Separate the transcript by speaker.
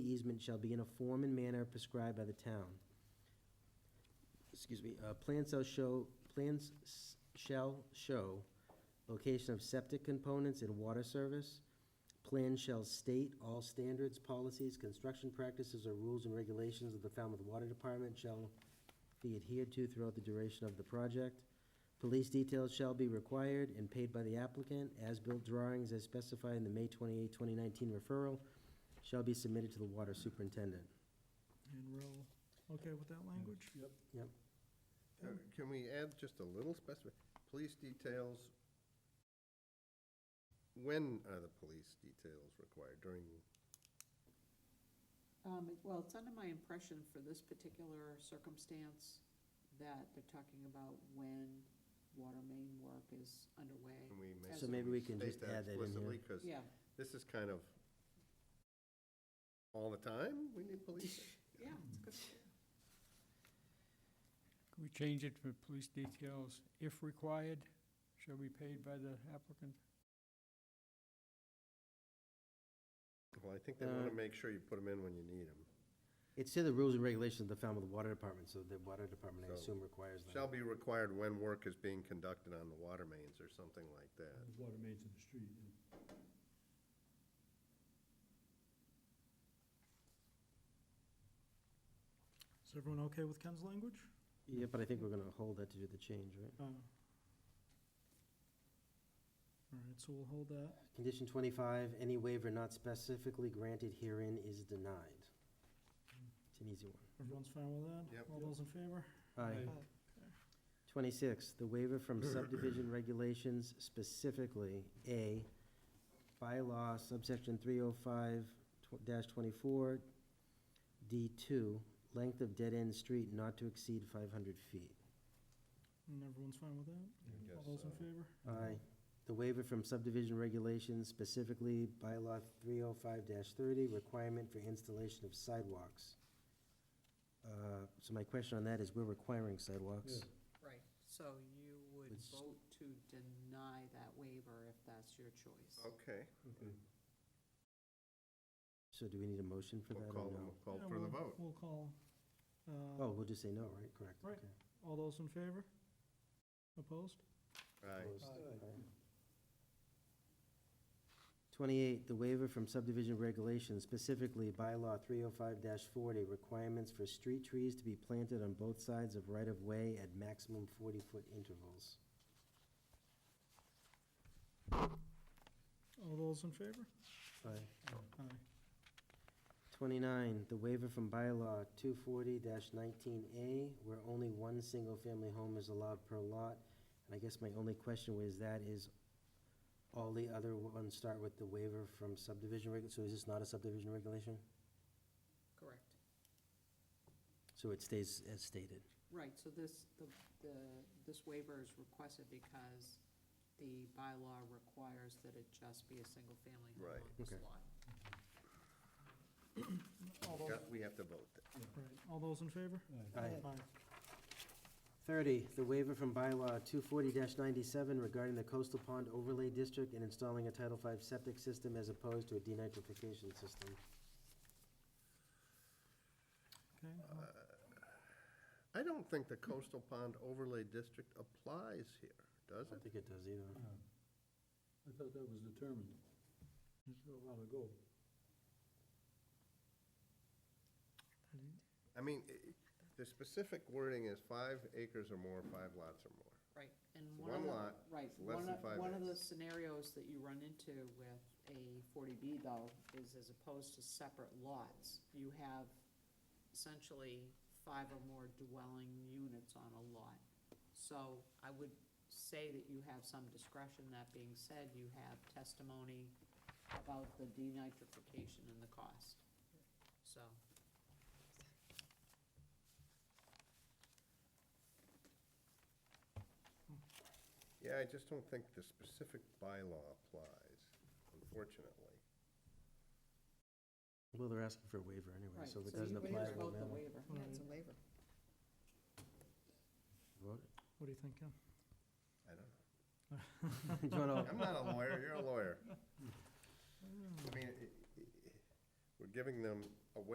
Speaker 1: easement shall be in a form and manner prescribed by the town. Excuse me, uh, plans shall show, plans s- shall show location of septic components and water service. Plan shall state all standards, policies, construction practices, or rules and regulations of the Falmouth Water Department shall be adhered to throughout the duration of the project. Police details shall be required and paid by the applicant. As-built drawings as specified in the May 28, 2019 referral shall be submitted to the water superintendent.
Speaker 2: And we're all okay with that language?
Speaker 3: Yep.
Speaker 1: Yep.
Speaker 3: Uh, Can we add just a little specific, police details? When are the police details required? During,
Speaker 4: Um, it- well, it's under my impression for this particular circumstance that they're talking about when water main work is underway.
Speaker 3: can we make?
Speaker 4: So
Speaker 3: can
Speaker 1: maybe we can
Speaker 3: state
Speaker 1: just add that in here.
Speaker 3: explicitly? 'Cause
Speaker 4: Yeah,
Speaker 3: this is kind of all the time, we need police.
Speaker 4: yeah, it's good.
Speaker 5: Can we change it for police details, if required, shall be paid by the applicant?
Speaker 3: Well, I think they want
Speaker 1: Uh,
Speaker 3: to make sure you put them in when you need them.
Speaker 1: It's in the rules and regulations of the Falmouth Water Department, so the water department, I
Speaker 3: So,
Speaker 1: assume, requires that.
Speaker 3: Shall be required when work is being conducted on the water mains or something like that.
Speaker 6: Water mains in the street, and
Speaker 2: Is everyone okay with Ken's language?
Speaker 1: Yeah, but I think we're gonna hold that to do the change, right?
Speaker 6: Uh-huh.
Speaker 2: Uh, All right, so we'll hold that.
Speaker 1: Condition twenty-five, any waiver not specifically granted herein is denied. It's an easy one.
Speaker 2: Everyone's fine with that?
Speaker 3: Yep.
Speaker 2: All those in favor?
Speaker 1: Aye.
Speaker 6: Aye.
Speaker 1: Twenty-six, the waiver from subdivision regulations specifically, A, bylaw subsection three oh five twenty-four, D two, length of dead-end street not to exceed five hundred feet.
Speaker 2: And everyone's fine with that?
Speaker 3: I guess,
Speaker 2: All those in
Speaker 3: uh,
Speaker 2: favor?
Speaker 1: Aye. The waiver from subdivision regulations, specifically bylaw three oh five thirty, requirement for installation of sidewalks. Uh, So my question on that is, we're requiring sidewalks.
Speaker 6: Yeah.
Speaker 4: Right, so you would
Speaker 1: It's-
Speaker 4: vote to deny that waiver if that's your choice.
Speaker 3: Okay,
Speaker 6: okay.
Speaker 1: Mm-hmm. So do we need a motion for
Speaker 3: we'll
Speaker 1: that or
Speaker 3: call, them-
Speaker 1: no?
Speaker 3: we'll call
Speaker 2: Yeah,
Speaker 3: for the
Speaker 2: we'll-
Speaker 3: vote.
Speaker 2: We'll call. uh,
Speaker 1: Oh, we'll just say no, right? Correct.
Speaker 2: Right.
Speaker 1: okay.
Speaker 2: All those in favor? Opposed?
Speaker 3: Aye.
Speaker 1: Opposed?
Speaker 6: Aye.
Speaker 1: Aye. Twenty-eight, the waiver from subdivision regulations, specifically bylaw three oh five forty, requirements for street trees to be planted on both sides of right-of-way at maximum forty-foot intervals.
Speaker 2: All those in favor?
Speaker 1: Aye.
Speaker 2: Aye.
Speaker 1: 29, the waiver from bylaw 240-19A, where only one single-family home is allowed per lot. And I guess my only question was that is, all the other ones start with the waiver from subdivision reg, so is this not a subdivision regulation?
Speaker 4: Correct.
Speaker 1: So it stays as stated.
Speaker 4: Right, so this, the, the, this waiver is requested because the bylaw requires that it just be a single-family home
Speaker 3: Right.
Speaker 4: on this
Speaker 1: Okay.
Speaker 4: lot.
Speaker 2: All those,
Speaker 3: Got- We have to vote.
Speaker 2: right, all those in favor?
Speaker 1: Aye.
Speaker 2: Aye.
Speaker 1: 30, the waiver from bylaw 240-97 regarding the coastal pond overlay district and installing a Title V septic system as opposed to a denitrification system.
Speaker 2: Okay, all-
Speaker 3: I don't think the coastal pond overlay district applies here,
Speaker 1: I
Speaker 3: does
Speaker 1: don't
Speaker 3: it?
Speaker 1: think it does either.
Speaker 6: Uh, I thought that was determined a while ago.
Speaker 3: I mean, i- the specific wording is five acres or more, five lots or more.
Speaker 4: Right, and
Speaker 3: So
Speaker 4: one of
Speaker 3: one
Speaker 4: the,
Speaker 3: lot,
Speaker 4: right,
Speaker 3: it's less
Speaker 4: one
Speaker 3: than
Speaker 4: of,
Speaker 3: five
Speaker 4: one of the
Speaker 3: acres.
Speaker 4: scenarios that you run into with a forty B though, is as opposed to separate lots, you have essentially five or more dwelling units on a lot. So I would say that you have some discretion, that being said, you have testimony about the denitrification and the cost, so.
Speaker 3: Yeah, I just don't think the specific bylaw applies, unfortunately.
Speaker 1: Well, they're asking for a waiver anyway,
Speaker 4: right,
Speaker 1: so if it
Speaker 4: you
Speaker 1: doesn't
Speaker 4: would
Speaker 1: apply, it
Speaker 4: just
Speaker 1: won't
Speaker 4: Vote the
Speaker 1: matter.
Speaker 4: waiver.
Speaker 2: Yeah, it's a
Speaker 4: waiver.
Speaker 1: Vote it.
Speaker 2: what do you think, Ken?
Speaker 3: I don't know.
Speaker 1: Do you wanna-
Speaker 3: I'm not a lawyer, you're a lawyer. I mean, i- i- i- we're giving them